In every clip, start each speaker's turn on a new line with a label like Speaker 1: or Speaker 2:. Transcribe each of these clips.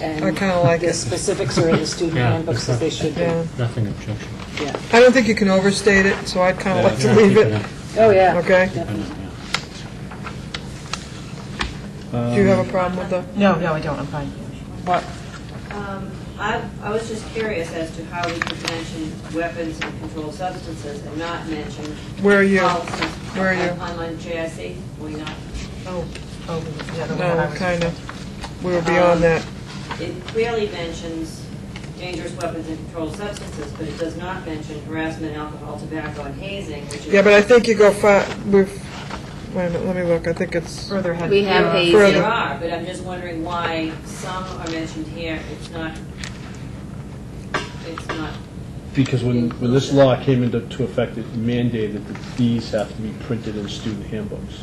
Speaker 1: and
Speaker 2: I kinda like
Speaker 1: The
Speaker 2: it.
Speaker 1: specifics are in the student
Speaker 3: Yeah,
Speaker 1: handbook,
Speaker 3: it's
Speaker 1: because they
Speaker 3: not-
Speaker 1: should be,
Speaker 2: Yeah.
Speaker 3: Nothing objectionable.
Speaker 1: yeah.
Speaker 2: I don't think you can overstate it, so I'd kind of like to
Speaker 3: Yeah,
Speaker 2: leave
Speaker 3: keep
Speaker 2: it.
Speaker 3: in.
Speaker 1: Oh, yeah.
Speaker 2: Okay.
Speaker 1: Definitely.
Speaker 4: Um,
Speaker 2: Do you
Speaker 3: Um,
Speaker 2: have a problem with the?
Speaker 5: No, no, I don't, I'm fine.
Speaker 2: What?
Speaker 6: Um, I, I was just curious as to how we could mention weapons and controlled substances and not mention.
Speaker 2: Where are you?
Speaker 6: policies
Speaker 2: Where are you?
Speaker 6: on- Online JIC, were we not?
Speaker 5: Oh, oh, the other one. I
Speaker 2: No,
Speaker 5: was-
Speaker 2: kind of. We were beyond that.
Speaker 6: It clearly mentions dangerous weapons and controlled substances, but it does not mention harassment, alcohol, tobacco, and hazing, which is.
Speaker 2: Yeah, but I think you go far, we've, wait a minute, let me look. I think it's,
Speaker 5: Further ahead.
Speaker 7: We have
Speaker 6: There are-
Speaker 7: hazing.
Speaker 6: There
Speaker 2: Further.
Speaker 6: are, but I'm just wondering why some are mentioned here, it's not, it's not
Speaker 4: Because when, when this law came into to effect, it mandated that these have to be printed in student handbooks.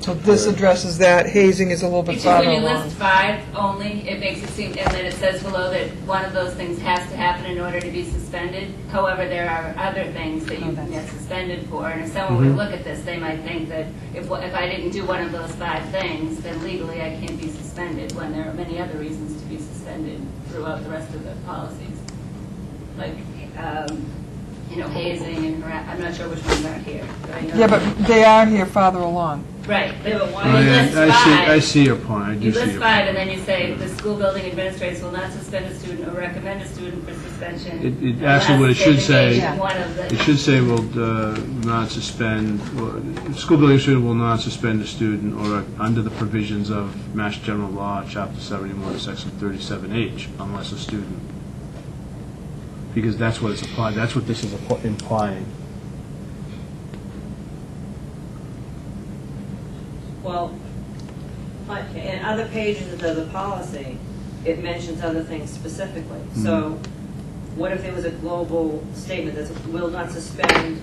Speaker 2: so this addresses that. Hazing is a little bit
Speaker 8: It's just
Speaker 2: farther
Speaker 8: when you
Speaker 2: along.
Speaker 8: list five only, it makes it seem, and then it says below that one of those things has to happen in order to be suspended. However, there are other things that
Speaker 2: Oh,
Speaker 8: you can get suspended for, and if someone
Speaker 4: Mm-hmm.
Speaker 8: would look at this, they might think that if, if I didn't do one of those five things, then legally I can't be suspended, when there are many other reasons to be suspended throughout the rest of the policies. Like, um, you know, hazing and harass, I'm not sure which ones aren't here, but I know.
Speaker 2: Yeah, but they are here farther along.
Speaker 8: Right, but
Speaker 6: Yeah, but why-
Speaker 8: when you list five-
Speaker 4: Oh, see your point, I
Speaker 8: You list five, and then you say, "The school building administrators will not suspend a student or recommend a student for suspension."
Speaker 4: It- it- actually, what it should
Speaker 8: unless they
Speaker 4: say-
Speaker 8: engage in one of the-
Speaker 4: It should say will uh, not suspend, or, school building student will not suspend a student or uh, under the provisions of Mass General Law, Chapter 71, Section 37H, unless a student. Because that's what it's applied, that's what this is appl- implying.
Speaker 6: Well, on- in other pages of the, the policy, it mentions other things specifically.
Speaker 2: Hmm.
Speaker 6: So what if there was a global statement that will not suspend,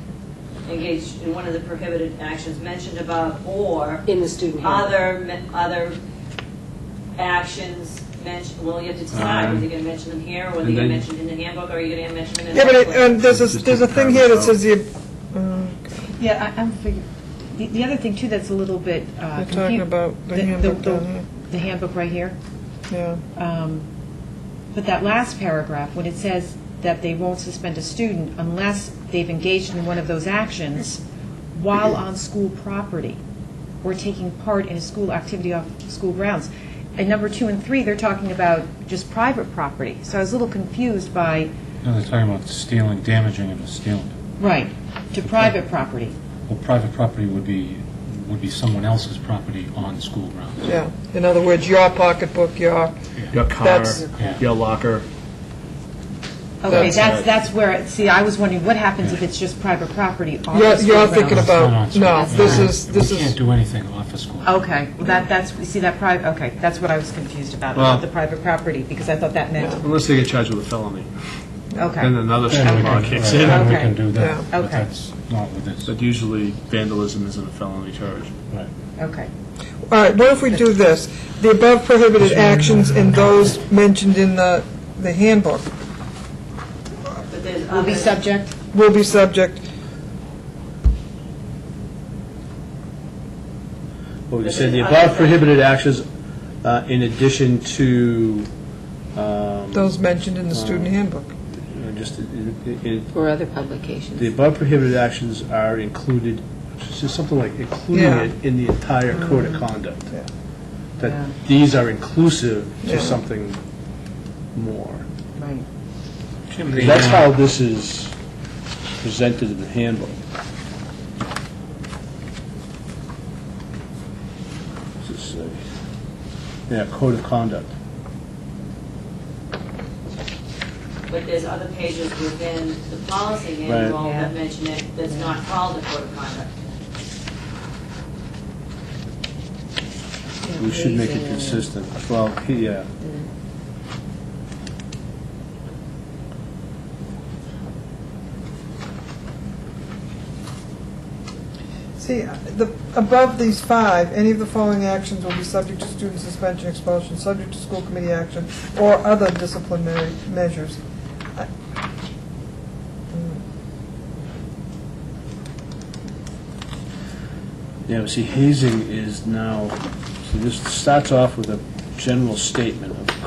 Speaker 6: engage in one of the prohibited actions mentioned above, or
Speaker 1: In the student handbook.
Speaker 6: other, me- other actions mentioned, well, you have to decide
Speaker 2: Uh-huh.
Speaker 6: whether you're going to mention them here, or whether
Speaker 4: And
Speaker 6: you're
Speaker 4: then-
Speaker 6: mentioned in the handbook, or you're going to mention them in the.
Speaker 2: Yeah, but it,
Speaker 6: handbook.
Speaker 2: and there's a, there's a thing here that says uh, the,
Speaker 5: Yeah, I- I'm figuring, the, the other thing too that's a little bit. uh,
Speaker 2: We're talking
Speaker 5: confu-
Speaker 2: about the
Speaker 5: the-
Speaker 2: handbook
Speaker 5: the-
Speaker 2: down here.
Speaker 5: The handbook right here.
Speaker 2: yeah.
Speaker 5: Um, But that last paragraph, when it says that they won't suspend a student unless they've engaged in one of those actions while on school property or taking part in a school activity off school grounds. And number two and three, they're talking about just private property. So I was a little confused by,
Speaker 3: No, they're talking about stealing, damaging and stealing.
Speaker 5: right, to private property.
Speaker 3: Well, private property would be, would be someone else's property on school grounds.
Speaker 2: Yeah, in other words, your pocketbook, your,
Speaker 4: Your
Speaker 2: That's-
Speaker 4: your locker.
Speaker 5: Okay,
Speaker 2: That's
Speaker 5: that's, that's where, it- see, I was wondering, what happens if it's just private property on
Speaker 2: you're
Speaker 5: the school
Speaker 2: you're thinking
Speaker 3: It's
Speaker 5: grounds?
Speaker 3: not on
Speaker 2: about,
Speaker 3: school
Speaker 2: no,
Speaker 3: grounds.
Speaker 2: this is, this
Speaker 3: We can't
Speaker 2: is,
Speaker 3: do anything off of school.
Speaker 5: Okay, well, that, that's, see, that private, okay, that's what I was confused about,
Speaker 4: Well-
Speaker 5: about the private property, because I thought that meant,
Speaker 4: Unless they get charged with a felony, then
Speaker 5: okay,
Speaker 4: another
Speaker 3: Then we
Speaker 4: state law
Speaker 3: can,
Speaker 4: kicks
Speaker 3: right, then
Speaker 4: in.
Speaker 3: we
Speaker 5: Okay.
Speaker 3: can do that,
Speaker 5: Yeah.
Speaker 3: but
Speaker 5: Okay.
Speaker 3: that's not with this.
Speaker 4: But usually vandalism isn't a felony charge.
Speaker 3: Right.
Speaker 5: okay.
Speaker 2: all right, what if we do this? The above prohibited actions and those mentioned in the, the handbook
Speaker 6: But there's
Speaker 5: Will be
Speaker 6: others.
Speaker 5: subject?
Speaker 2: will be subject,
Speaker 4: Well, you said the above prohibited actions uh, in addition to, um,
Speaker 2: those mentioned in the student handbook.
Speaker 4: you know, just, in- in-
Speaker 7: Or other publications.
Speaker 4: the above prohibited actions are included, it's just something like including
Speaker 2: Yeah. Mm-hmm.
Speaker 4: it in the entire code of conduct.
Speaker 2: Yeah.
Speaker 5: Yeah.
Speaker 4: That these are inclusive
Speaker 2: Yeah.
Speaker 4: to something more.
Speaker 5: Right.
Speaker 3: Jim,
Speaker 4: That's how this is presented in the handbook. What's it say? Yeah, code of conduct.
Speaker 6: But there's other pages within the policy manual
Speaker 5: Right.
Speaker 6: that mention it, that's not called a code of conduct.
Speaker 4: We should make it consistent. Well, he- yeah.
Speaker 2: See, uh, the, above these five, any of the following actions will be subject to student suspension, expulsion, subject to school committee action, or other disciplinary measures. I- hmm.
Speaker 4: Yeah, but see, hazing is now, see, this starts off with a general statement of